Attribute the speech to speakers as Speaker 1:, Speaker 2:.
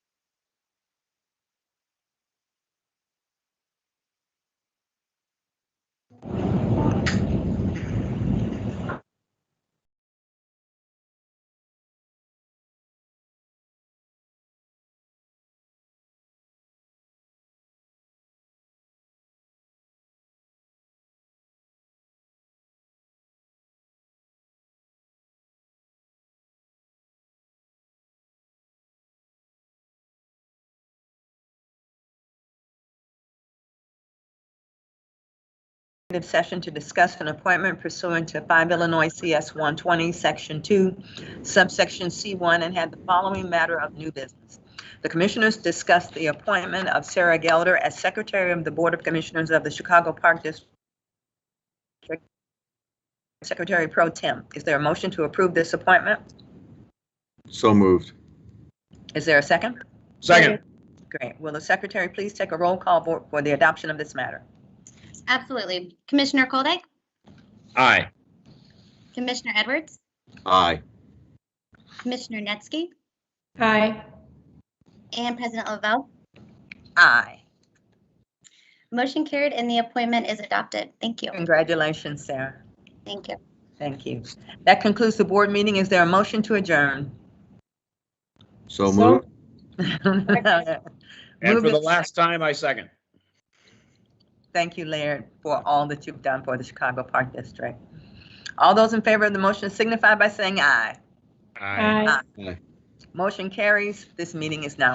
Speaker 1: executive session to discuss an appointment pursuant to 5 Illinois CS 120, Section 2, subsection C1, and had the following matter of new business. The commissioners discussed the appointment of Sarah Gelder as Secretary of the Board of Commissioners of the Chicago Park District Secretary Pro Tem. Is there a motion to approve this appointment?
Speaker 2: So moved.
Speaker 1: Is there a second?
Speaker 3: Second.
Speaker 1: Great. Will the secretary please take a roll call vote for the adoption of this matter?
Speaker 4: Absolutely. Commissioner Koldeck,
Speaker 3: Aye.
Speaker 4: Commissioner Edwards,
Speaker 2: Aye.
Speaker 4: Commissioner Netsky,
Speaker 5: Aye.
Speaker 4: and President Lavelle.
Speaker 1: Aye.
Speaker 4: Motion carried and the appointment is adopted. Thank you.
Speaker 1: Congratulations, Sarah.
Speaker 4: Thank you.
Speaker 1: Thank you. That concludes the board meeting. Is there a motion to adjourn?
Speaker 2: So
Speaker 5: So-
Speaker 2: moved.
Speaker 3: And for
Speaker 1: Move
Speaker 3: the
Speaker 1: it.
Speaker 3: last time, I second.
Speaker 1: Thank you, Laird, for all that you've done for the Chicago Park District. All those in favor of the motion signify by saying aye.
Speaker 5: Aye.
Speaker 1: Motion carries. This meeting is now